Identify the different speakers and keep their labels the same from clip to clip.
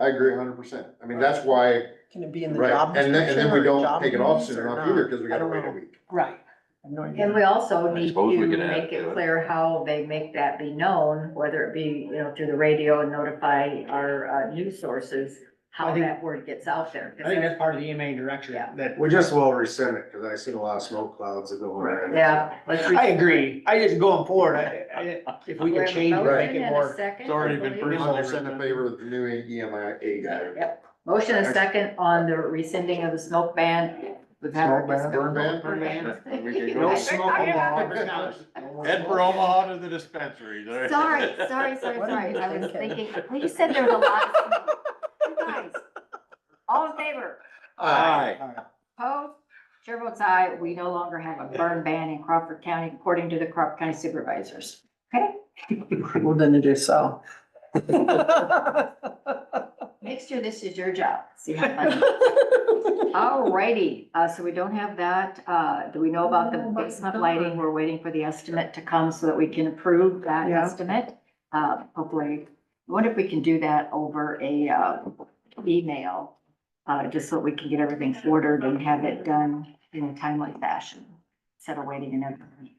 Speaker 1: I agree hundred percent. I mean, that's why,
Speaker 2: Can it be in the job
Speaker 1: right, and then, and
Speaker 2: description
Speaker 1: then we
Speaker 2: or
Speaker 1: don't
Speaker 2: job
Speaker 1: take it off
Speaker 2: duties
Speaker 1: soon
Speaker 2: or
Speaker 1: enough
Speaker 2: not?
Speaker 1: either, because we
Speaker 2: I
Speaker 1: gotta
Speaker 2: don't
Speaker 1: wait a
Speaker 2: know.
Speaker 1: week.
Speaker 2: Right, I have no
Speaker 3: And
Speaker 2: idea.
Speaker 3: we also
Speaker 4: I
Speaker 3: need
Speaker 4: suppose we
Speaker 3: to
Speaker 4: could add
Speaker 3: make
Speaker 4: to
Speaker 3: it
Speaker 4: it.
Speaker 3: clear how they make that be known, whether it be, you know, through the radio, notify our uh, news sources,
Speaker 5: I
Speaker 3: how
Speaker 5: think-
Speaker 3: that word gets out there. 'Cause
Speaker 5: I think that's part of the EMA direction,
Speaker 3: Yeah.
Speaker 5: that,
Speaker 6: We just will rescind it, cause I seen a lot of smoke clouds that go over.
Speaker 3: Yeah. let's re-
Speaker 5: I agree, I just going forward, I, I, if we
Speaker 3: Do have
Speaker 5: can
Speaker 3: a
Speaker 5: change, it,
Speaker 3: motion
Speaker 5: make it
Speaker 3: and a
Speaker 5: more.
Speaker 3: second,
Speaker 4: It's already been
Speaker 3: I believe.
Speaker 1: We're
Speaker 4: Pretty
Speaker 1: all
Speaker 4: much
Speaker 1: sent in
Speaker 4: rescinded.
Speaker 1: favor of the new E EMIA guy.
Speaker 3: Yep. Motion and second on the rescinding of the smoke ban. We've had our
Speaker 6: Smoke ban,
Speaker 3: discussion.
Speaker 1: burn ban?
Speaker 3: Burn ban.
Speaker 4: No
Speaker 3: I-
Speaker 4: smoke
Speaker 3: I-
Speaker 5: allowed.
Speaker 4: Head for Omaha to the dispensary. there.
Speaker 7: Sorry, sorry, sorry,
Speaker 2: What am I
Speaker 7: sorry. I was
Speaker 2: thinking?
Speaker 7: thinking, well, you said there was a lot of smoke.
Speaker 3: You guys, All in favor?
Speaker 4: Aye.
Speaker 3: Opposed? Chair votes aye. We no longer have a burn ban in Crawford County according to the Crawford County Supervisors.
Speaker 2: Well, then it is so.
Speaker 3: Next year, this is your job. See how funny. Alrighty, uh, so we don't have that. Uh, do we know about the basement lighting? We're waiting for the estimate to come so that we can approve that
Speaker 2: Yeah.
Speaker 3: estimate. Uh, hopefully, I wonder if we can do that over a, uh, email, uh, just so we can get everything ordered and have it done in a timely fashion, instead of waiting another week.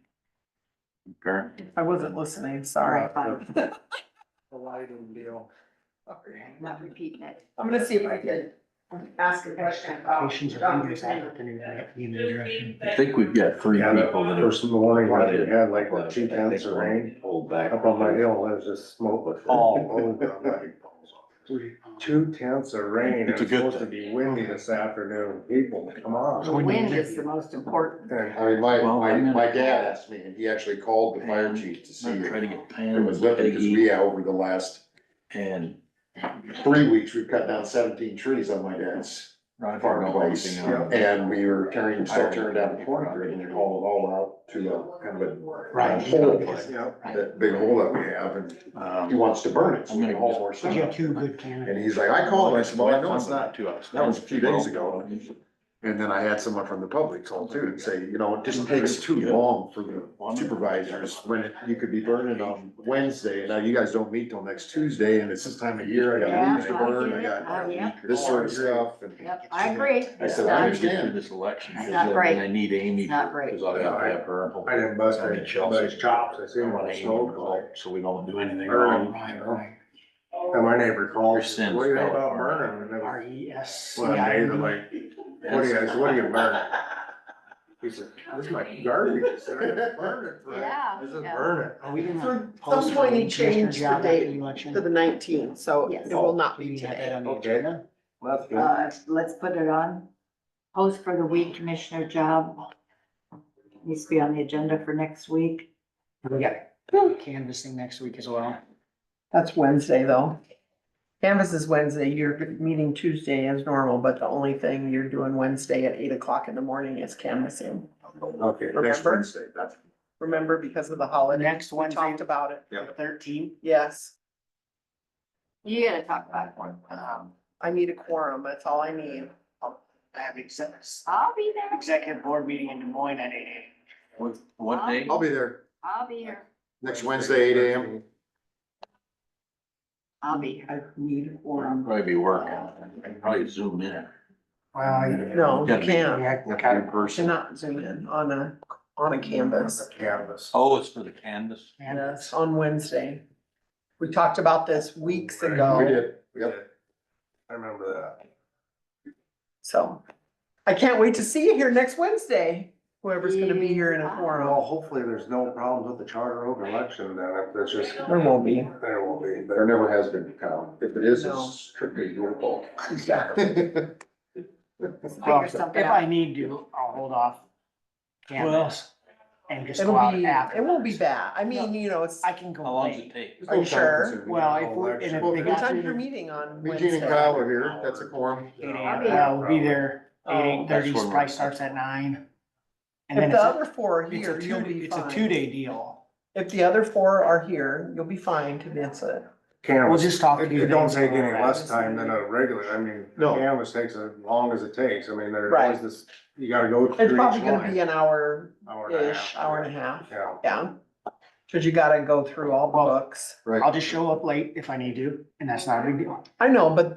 Speaker 4: Current.
Speaker 2: I wasn't listening, sorry.
Speaker 3: Alright, fine.
Speaker 6: The lighting deal.
Speaker 3: I'm Not repeating it.
Speaker 2: I'm gonna see if I can ask a question about.
Speaker 5: Patients are
Speaker 2: Dr.
Speaker 5: fingers
Speaker 2: Sanders.
Speaker 5: out, and they're in the direction.
Speaker 4: I think we've got three
Speaker 6: Yeah, that
Speaker 4: people that are.
Speaker 6: first morning, I had like what, two tenths of rain
Speaker 4: Hold back.
Speaker 6: up on my hill, there's just smoke
Speaker 1: Oh.
Speaker 6: all over. I'm like, Two tenths of rain, it's
Speaker 4: It's a good
Speaker 6: supposed to be windy this afternoon, people, come on.
Speaker 3: The wind is the most important.
Speaker 1: I
Speaker 6: And
Speaker 1: mean, my,
Speaker 4: Well,
Speaker 1: my,
Speaker 4: I'm gonna-
Speaker 1: my dad asked me, and he actually called the fire chief to see
Speaker 4: I'm trying to
Speaker 1: who
Speaker 4: get Pam
Speaker 1: was
Speaker 4: and
Speaker 1: living, because
Speaker 4: Peggy
Speaker 1: we, uh, over the last
Speaker 4: and
Speaker 1: three weeks, we've cut down seventeen trees on my dad's
Speaker 4: Roger know
Speaker 1: farmhouse.
Speaker 4: everything on.
Speaker 1: And we were tearing, still tearing down the corner grid, and they called it all out to a kind of a.
Speaker 5: Right.
Speaker 1: Hole,
Speaker 6: Yeah.
Speaker 1: that big hole that we have, and he
Speaker 4: Um,
Speaker 1: wants to burn it, so we can haul more
Speaker 5: But
Speaker 1: stuff.
Speaker 5: you have two good
Speaker 1: And
Speaker 5: candidates.
Speaker 1: he's like, I called, and I said, well, I know it's not
Speaker 4: to us.
Speaker 1: That was a few days ago. And then I had someone from the public call too and say, you know, it just takes too long for the supervisors when it- you could be burning on Wednesday. and Now you guys don't meet till next Tuesday and it's this time of year. I got leaves to burn, I
Speaker 3: Oh, yeah.
Speaker 1: got this sort of stuff. and-
Speaker 3: Yep, I agree.
Speaker 1: I said, I understand.
Speaker 4: This election,
Speaker 3: It's
Speaker 4: because
Speaker 3: not
Speaker 4: then
Speaker 3: great.
Speaker 4: I need Amy.
Speaker 3: It's not great.
Speaker 4: Because I gotta have her.
Speaker 6: I didn't bust
Speaker 4: I mean,
Speaker 6: anybody's chops, I
Speaker 4: I
Speaker 6: seen
Speaker 4: want
Speaker 6: one
Speaker 4: Amy
Speaker 6: smoke.
Speaker 4: involved, So we don't do anything
Speaker 6: Burning.
Speaker 4: wrong.
Speaker 6: And my neighbor called,
Speaker 4: Sins
Speaker 6: what do you think
Speaker 4: fell
Speaker 6: about
Speaker 4: apart.
Speaker 6: burning? And it was-
Speaker 5: R E S C
Speaker 6: Well,
Speaker 5: I
Speaker 6: they were
Speaker 5: N.
Speaker 6: like, what do you, I said, what do you burn? He said, this is my garbage, I said, "I didn't burn it, Fred."
Speaker 3: Yeah,
Speaker 6: I said,
Speaker 3: yeah.
Speaker 6: burn it.
Speaker 2: Oh,
Speaker 5: Are we gonna
Speaker 2: So at
Speaker 5: post
Speaker 2: some point
Speaker 5: the
Speaker 2: he changed the
Speaker 5: job after
Speaker 2: date
Speaker 5: election?
Speaker 2: to the nineteenth, so
Speaker 3: Yes.
Speaker 2: it will not
Speaker 5: Do
Speaker 2: be
Speaker 5: we have that
Speaker 2: today.
Speaker 5: on the
Speaker 6: Okay.
Speaker 5: agenda?
Speaker 6: That's good.
Speaker 3: Uh, let's put it on. Post for the week commissioner job. Needs to be on the agenda for next week.
Speaker 5: We got canvassing next week as well.
Speaker 2: That's Wednesday, though. Canvas is Wednesday, you're meeting Tuesday as normal, but the only thing you're doing Wednesday at eight o'clock in the morning is canvassing.
Speaker 6: Okay, next
Speaker 2: Remember?
Speaker 6: Wednesday, that's.
Speaker 2: Remember, because of the holiday.
Speaker 5: Next
Speaker 2: We
Speaker 5: Wednesday.
Speaker 2: Talked about it,
Speaker 6: Yeah.
Speaker 5: Thirteen.
Speaker 2: yes.
Speaker 3: You gotta talk about it. Um,
Speaker 2: I need a quorum, that's all I need.
Speaker 5: I have exec-
Speaker 3: I'll be there.
Speaker 5: executive board meeting in Des Moines at eight AM.
Speaker 4: What, what day?
Speaker 1: I'll be there
Speaker 3: I'll be here.
Speaker 1: next Wednesday, eight AM.
Speaker 3: I'll be here.
Speaker 2: I need a
Speaker 4: I'll
Speaker 2: quorum.
Speaker 4: Probably be working. I can probably zoom in.
Speaker 5: Well, you-
Speaker 2: No, you
Speaker 4: Gotta be-
Speaker 2: can't, you
Speaker 5: yeah,
Speaker 1: Not
Speaker 5: kind
Speaker 1: in
Speaker 5: of
Speaker 1: person.
Speaker 2: cannot zoom in on a, on a canvas.
Speaker 6: Canvas.
Speaker 4: Oh, it's for the canvas?
Speaker 2: Yes,
Speaker 5: canvass.
Speaker 2: on Wednesday. We talked about this weeks
Speaker 1: We
Speaker 2: ago,
Speaker 1: did, yep.
Speaker 6: I remember that.
Speaker 2: so. I can't wait to see you here next Wednesday, whoever's gonna be here in a
Speaker 6: Well,
Speaker 2: quorum.
Speaker 6: hopefully there's no problems with the charter oak election then, if there's just,
Speaker 2: There won't be.
Speaker 6: there won't be, but
Speaker 1: There never has been, Kyle. If it is,
Speaker 2: No.
Speaker 1: it's strictly your fault.
Speaker 2: Exactly.
Speaker 3: Figure something
Speaker 5: If I
Speaker 3: out.
Speaker 5: need to, I'll hold off. Canvas and just
Speaker 2: It'll
Speaker 5: go out
Speaker 2: be,
Speaker 5: after.
Speaker 2: it won't be bad. I mean, you know, it's,
Speaker 5: I can
Speaker 4: How
Speaker 5: go
Speaker 4: long does it
Speaker 5: late.
Speaker 4: take?
Speaker 2: Are you sure?
Speaker 5: Well, if we're- and if they
Speaker 2: what
Speaker 5: got-
Speaker 2: time you're meeting
Speaker 1: Eugene
Speaker 2: on
Speaker 1: and
Speaker 2: Wednesday?
Speaker 1: Kyle are here, that's a quorum.
Speaker 5: Eight
Speaker 3: I'll
Speaker 5: AM,
Speaker 3: be
Speaker 5: yeah, we'll be there,
Speaker 2: Oh.
Speaker 5: eight, eight thirty,
Speaker 4: That's where
Speaker 5: probably
Speaker 4: we're-
Speaker 5: starts at nine. And
Speaker 2: If
Speaker 5: then
Speaker 2: the
Speaker 5: it's
Speaker 2: other
Speaker 5: a,
Speaker 2: four are
Speaker 5: it's a
Speaker 2: here, you'll
Speaker 5: two,
Speaker 2: be
Speaker 5: it's a
Speaker 2: fine.
Speaker 5: two-day deal.
Speaker 2: If the other four are here, you'll be fine to miss it.
Speaker 5: We'll
Speaker 6: Canvas,
Speaker 5: just talk.
Speaker 6: it
Speaker 5: two
Speaker 6: it don't
Speaker 5: days
Speaker 6: take any
Speaker 5: tomorrow.
Speaker 6: less time than a regular, I mean,
Speaker 1: No.
Speaker 6: canvas takes as long as it takes, I mean, there's
Speaker 2: Right.
Speaker 6: always this, you gotta go through
Speaker 2: It's
Speaker 6: each
Speaker 2: probably gonna
Speaker 6: line.
Speaker 2: be an hour-ish,
Speaker 6: Hour and a half.
Speaker 2: hour and a half,
Speaker 6: Yeah.
Speaker 2: yeah. Cause you gotta go through all the books.
Speaker 1: Right.
Speaker 5: I'll just show up late if I need to, and that's not a big deal.
Speaker 2: I know, but